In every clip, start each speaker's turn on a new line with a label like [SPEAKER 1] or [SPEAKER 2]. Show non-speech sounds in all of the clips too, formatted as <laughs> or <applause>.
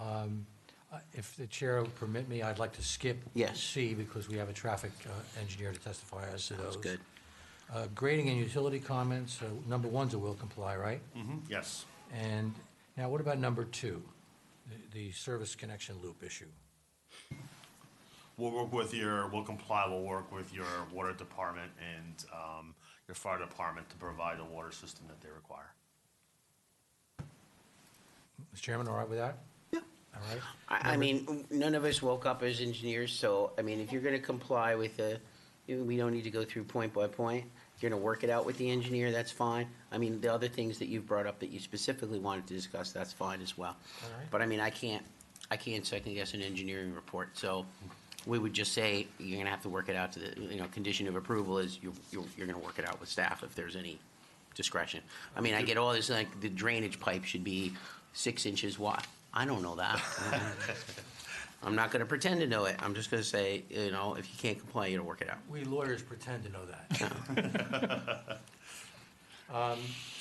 [SPEAKER 1] Um, uh, If the chair will permit me, I'd like to skip
[SPEAKER 2] Yes.
[SPEAKER 1] C because we have a traffic uh, engineer to testify as to those.
[SPEAKER 2] Sounds good.
[SPEAKER 1] Uh, Grading and utility comments, uh, number one's a will comply, right?
[SPEAKER 3] Yes.
[SPEAKER 1] And now what about number two, the- the service connection loop issue?
[SPEAKER 3] We'll work with your, we'll comply, we'll work with your water department and um, your fire department to provide the water system that they require.
[SPEAKER 1] Mr. Chairman, all right with that?
[SPEAKER 2] Yeah.
[SPEAKER 1] All right?
[SPEAKER 2] I, I mean, none of us woke up as engineers, so, I mean, if you're gonna comply with the, we don't need to go through point by point. If you're gonna work it out with the engineer, that's fine. I mean, the other things that you've brought up that you specifically wanted to discuss, that's fine as well.
[SPEAKER 1] All right.
[SPEAKER 2] But I mean, I can't, I can't second guess an engineering report, so we would just say, you're gonna have to work it out to the, you know, condition of approval is you, you're, you're gonna work it out with staff if there's any discretion. I mean, I get all this, like, the drainage pipe should be six inches wide. I don't know that.
[SPEAKER 1] <laughs>
[SPEAKER 2] I'm not gonna pretend to know it. I'm just gonna say, you know, if you can't comply, you don't work it out.
[SPEAKER 1] We lawyers pretend to know that. Um,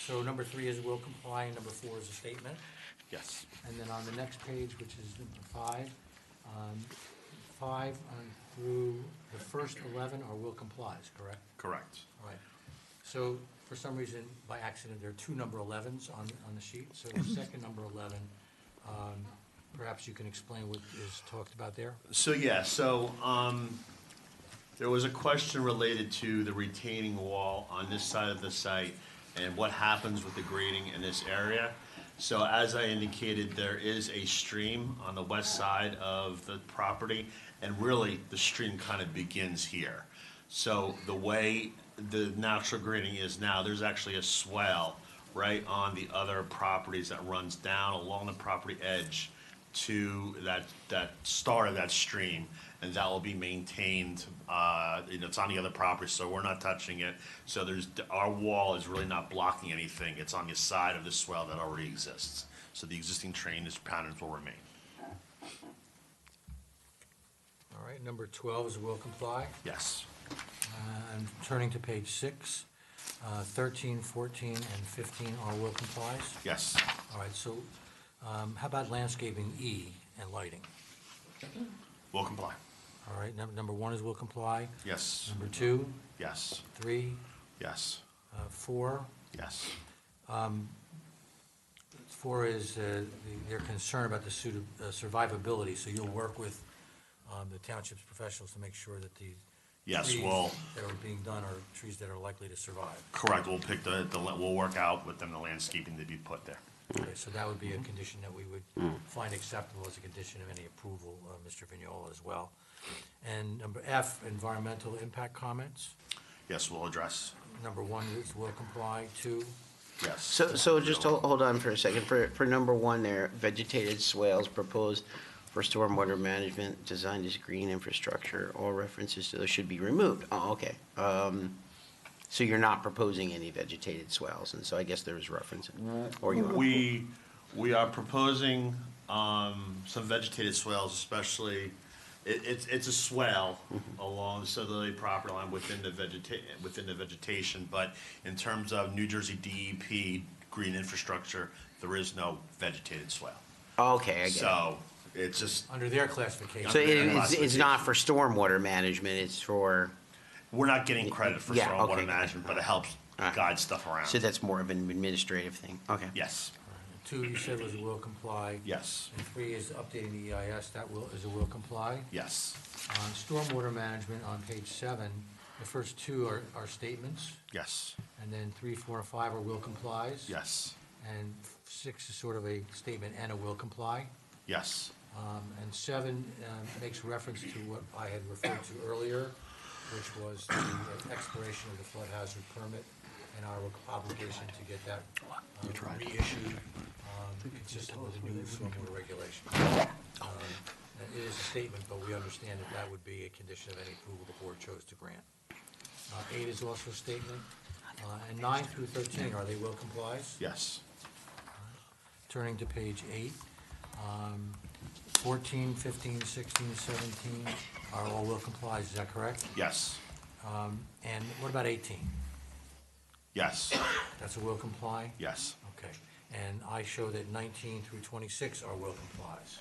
[SPEAKER 1] So number three is will comply, and number four is a statement.
[SPEAKER 3] Yes.
[SPEAKER 1] And then on the next page, which is number five, um, five on through the first 11 are will complies, correct?
[SPEAKER 3] Correct.
[SPEAKER 1] All right. So for some reason, by accident, there are two number 11s on, on the sheet. So the second number 11, um, perhaps you can explain what is talked about there?
[SPEAKER 3] So, yeah, so um, there was a question related to the retaining wall on this side of the site and what happens with the grading in this area. So as I indicated, there is a stream on the west side of the property, and really, the stream kind of begins here. So the way the natural grading is now, there's actually a swell right on the other properties that runs down along the property edge to that, that start of that stream, and that will be maintained, uh, you know, it's on the other property, so we're not touching it. So there's, our wall is really not blocking anything, it's on the side of the swell that already exists. So the existing train is patterns will remain.
[SPEAKER 1] All right, number 12 is will comply.
[SPEAKER 3] Yes.
[SPEAKER 1] I'm turning to page six. Uh, 13, 14, and 15 are will complies.
[SPEAKER 3] Yes.
[SPEAKER 1] All right, so um, how about landscaping E and lighting?
[SPEAKER 3] Will comply.
[SPEAKER 1] All right, num- number one is will comply.
[SPEAKER 3] Yes.
[SPEAKER 1] Number two,
[SPEAKER 3] Yes.
[SPEAKER 1] three,
[SPEAKER 3] Yes.
[SPEAKER 1] uh, four.
[SPEAKER 3] Yes.
[SPEAKER 1] Four is uh, the- their concern about the suit- uh, survivability, so you'll work with um, the township's professionals to make sure that the
[SPEAKER 3] Yes,
[SPEAKER 1] trees
[SPEAKER 3] well-
[SPEAKER 1] that are being done are trees that are likely to survive.
[SPEAKER 3] Correct, we'll pick the, the, we'll work out with them the landscaping to be put there.
[SPEAKER 1] Okay, so that would be a condition that we would find acceptable as a condition of any approval, uh, Mr. Vignola as well. And number F, environmental impact comments.
[SPEAKER 3] Yes, we'll address.
[SPEAKER 1] Number one is will comply, two,
[SPEAKER 3] Yes.
[SPEAKER 2] So, so just hold, hold on for a second. For, for number one there, vegetated swales proposed for stormwater management designed as green infrastructure. All references to those should be removed. Oh, okay. Um, so you're not proposing any vegetated swales, and so I guess there was reference, or you are.
[SPEAKER 3] We, we are proposing, um, some vegetated swales, especially, it, it's, it's a swale
[SPEAKER 2] Mm-hmm.
[SPEAKER 3] along the southerly property line within the vegeta- within the vegetation, but in terms of New Jersey DEP green infrastructure, there is no vegetated swale.
[SPEAKER 2] Okay, I get it.
[SPEAKER 3] So, it's just,
[SPEAKER 1] under their classification.
[SPEAKER 2] So it-
[SPEAKER 3] Yeah,
[SPEAKER 2] it's, it's not for stormwater management, it's for,
[SPEAKER 3] we're not getting credit for
[SPEAKER 2] Yeah, okay.
[SPEAKER 3] stormwater management, but it helps
[SPEAKER 2] Alright.
[SPEAKER 3] guide stuff
[SPEAKER 2] so
[SPEAKER 3] around.
[SPEAKER 2] that's more of an administrative thing. Okay.
[SPEAKER 3] Yes,
[SPEAKER 1] Two, you said was a will comply.
[SPEAKER 3] yes,
[SPEAKER 1] And three is updating the EIS, that will, is a will comply.
[SPEAKER 3] yes,
[SPEAKER 1] On stormwater management on page seven, the first two are, are statements,
[SPEAKER 3] yes,
[SPEAKER 1] and then three, four, and five are will complies.
[SPEAKER 3] yes,
[SPEAKER 1] And six is sort of a statement and a will comply.
[SPEAKER 3] yes,
[SPEAKER 1] Um, And seven um, makes reference to what I had referred to earlier, which was the expiration of the flood hazard permit and our obligation to get that uh, reissued um, consistent with the new stormwater regulation. Uh, It is a statement, but we understand that that would be a condition of any approval the board chose to grant. Uh, Eight is also a statement, Uh, and nine through 13, are they will complies?
[SPEAKER 3] yes,
[SPEAKER 1] Turning to page eight, um, 14, 15, 16, 17 are all will complies, is that correct?
[SPEAKER 3] yes,
[SPEAKER 1] Um, And what about 18?
[SPEAKER 3] yes,
[SPEAKER 1] That's a will comply?
[SPEAKER 3] yes.
[SPEAKER 1] Okay. And I show that 19 through 26 are will complies.